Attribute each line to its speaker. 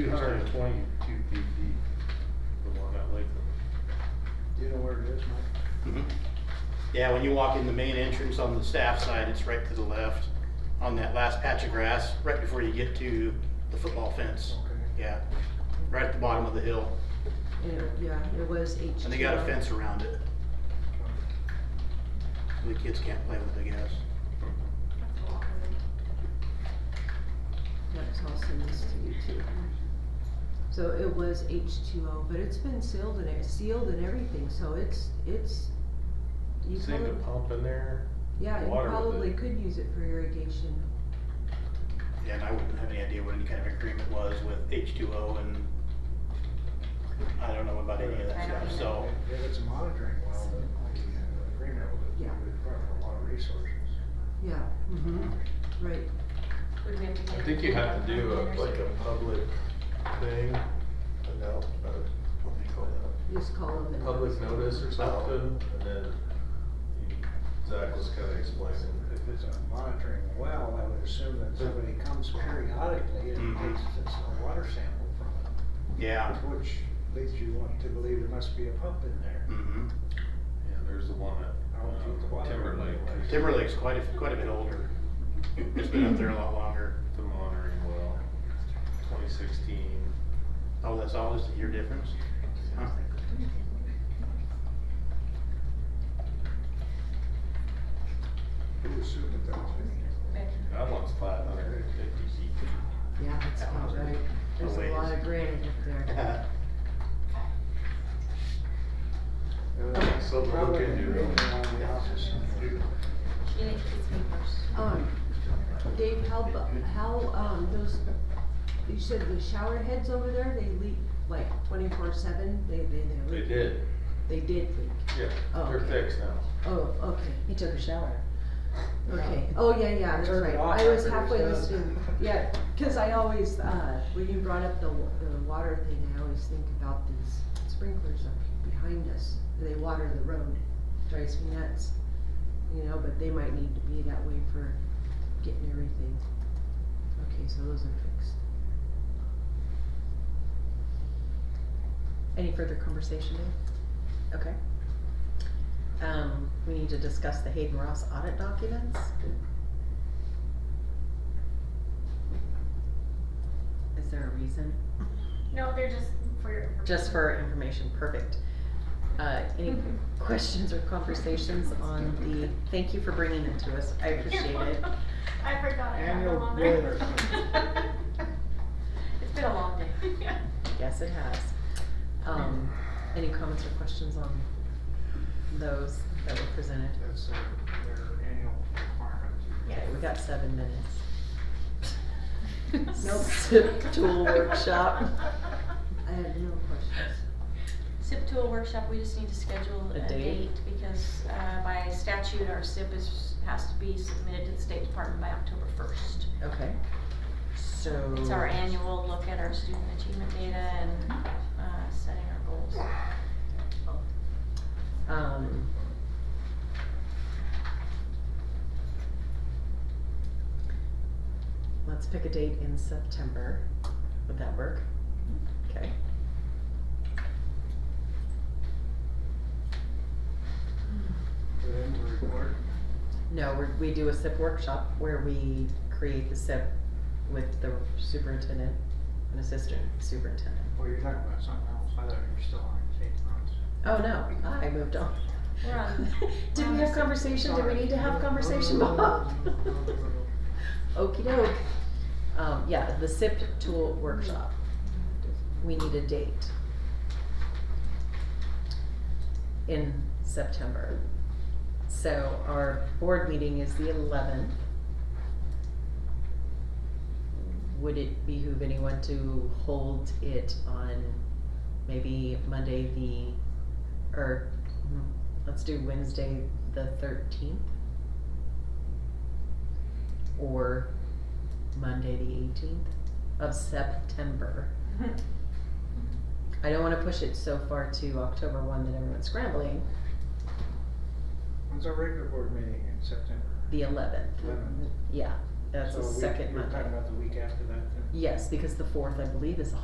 Speaker 1: Two hundred and twenty-two feet deep, the one at Lakeland.
Speaker 2: Do you know where it is, Mike?
Speaker 3: Mhm. Yeah, when you walk in the main entrance on the staff side, it's right to the left on that last patch of grass, right before you get to the football fence.
Speaker 2: Okay.
Speaker 3: Yeah, right at the bottom of the hill.
Speaker 4: It- Yeah, it was H2.
Speaker 3: And they got a fence around it. The kids can't play with it, I guess.
Speaker 4: That's all sent this to you too. So it was H2O, but it's been sealed and, it- sealed and everything, so it's, it's, you
Speaker 1: Save the
Speaker 4: probably,
Speaker 1: pump in there.
Speaker 4: yeah, you
Speaker 1: water with
Speaker 4: probably
Speaker 1: it.
Speaker 4: could use it for irrigation.
Speaker 3: Yeah, and I wouldn't have any idea what any kind of agreement was with H2O and I don't know about any of that
Speaker 5: I don't
Speaker 3: stuff, so.
Speaker 2: If it's a monitoring well, then like you have an agreement with it,
Speaker 4: Yeah.
Speaker 2: we would require a lot of resources.
Speaker 4: Yeah,
Speaker 1: Mm-hmm.
Speaker 4: mhm, right.
Speaker 1: I think you have to do a, like a public thing, an out, uh, what do you call that?
Speaker 4: Just call them and.
Speaker 1: Public notice or something, and then you- Zach was kinda explaining.
Speaker 2: If it's a monitoring well, I would assume that somebody comes periodically and
Speaker 3: Mhm.
Speaker 2: takes this a water sample from
Speaker 3: Yeah.
Speaker 2: it, which leads you want to believe there must be a pump in there.
Speaker 3: hmm
Speaker 1: Yeah, there's the one at
Speaker 2: Oh,
Speaker 1: um,
Speaker 2: geez, the water.
Speaker 1: Timberlake.
Speaker 3: Timberlake's quite a, quite a bit older. It's been up there a lot longer.
Speaker 1: The monitoring well, twenty sixteen.
Speaker 3: Oh, that's all, just a year difference? Huh. Mm-hmm.
Speaker 2: Who assumed that that was me?
Speaker 1: That one's five hundred and fifty feet.
Speaker 4: Yeah, that's about right. There's a lot of granite up there.
Speaker 2: Uh,
Speaker 1: that's something to look
Speaker 2: Probably
Speaker 1: into.
Speaker 2: agreement on the office somewhere.
Speaker 5: You need to kiss me first.
Speaker 4: Um, Dave, how, bu- how, um, those, you said the shower heads over there, they leak like twenty-four seven, they, they, they
Speaker 1: They
Speaker 4: leak?
Speaker 1: did,
Speaker 4: They did leak.
Speaker 1: yeah,
Speaker 4: Oh,
Speaker 1: they're
Speaker 4: okay.
Speaker 1: fixed now.
Speaker 4: Oh, okay,
Speaker 6: He took a shower.
Speaker 4: okay. Oh, yeah, yeah, that's
Speaker 2: Turned it
Speaker 4: right.
Speaker 2: off
Speaker 4: I was
Speaker 2: after
Speaker 4: halfway
Speaker 2: it was
Speaker 4: listening.
Speaker 2: done.
Speaker 4: Yeah, cause I always, uh, when you brought up the, wa- the water thing, I always think about these sprinklers up behind us. They water the road. Drives me nuts, you know, but they might need to be that way for getting everything. Okay, so those are fixed.
Speaker 6: Any further conversation, Dave? Okay. Um, we need to discuss the Hayden Ross audit documents. Is there a reason?
Speaker 5: No, they're just for your.
Speaker 6: Just for information, perfect. Uh, any
Speaker 7: Mm-hmm.
Speaker 6: questions or conversations on the, thank you for bringing them to us, I appreciate it.
Speaker 5: I forgot, I have
Speaker 2: Annual
Speaker 5: no longer.
Speaker 2: bill or
Speaker 5: It's been a long day.
Speaker 6: Yes, it has. Um, any comments or questions on those that were presented?
Speaker 2: That's their, their annual requirement.
Speaker 5: Yes.
Speaker 6: Okay, we got seven minutes.
Speaker 5: Nope.
Speaker 6: Sip tool workshop.
Speaker 4: I have no questions.
Speaker 7: SIP tool workshop, we just need to schedule
Speaker 6: A
Speaker 7: a
Speaker 6: date?
Speaker 7: date because uh, by statute, our SIP is, has to be submitted to the State Department by October first.
Speaker 6: Okay, so.
Speaker 7: It's
Speaker 1: Oh.
Speaker 7: our annual look at our student achievement data and uh, setting our goals.
Speaker 6: Um. Let's pick a date in September. Would that work? Okay.
Speaker 2: Put in the report.
Speaker 6: No, we're, we do a SIP workshop where we create the SIP with the superintendent and assistant superintendent.
Speaker 2: Well, you're talking about something else. I thought you were still on Kate Knox.
Speaker 6: Oh, no, I moved on.
Speaker 7: We're on,
Speaker 6: Did we have conversation? Did we need to have conversation,
Speaker 2: Oh.
Speaker 6: Bob? Okey doke. Um, yeah, the SIP tool workshop. We need a date. In September. So our board meeting is the eleventh. Would it behoove anyone to hold it on maybe Monday the, or, mm, let's do Wednesday the thirteenth? Or Monday the eighteenth of September. I don't wanna push it so far to October one that everyone's scrambling,
Speaker 2: When's our regular board meeting in September?
Speaker 6: the eleventh,
Speaker 2: Eleventh.
Speaker 6: yeah, that's the
Speaker 2: So we-
Speaker 6: second
Speaker 2: You're
Speaker 6: Monday.
Speaker 2: talking about the week after that then?
Speaker 6: Yes, because the fourth, I believe, is a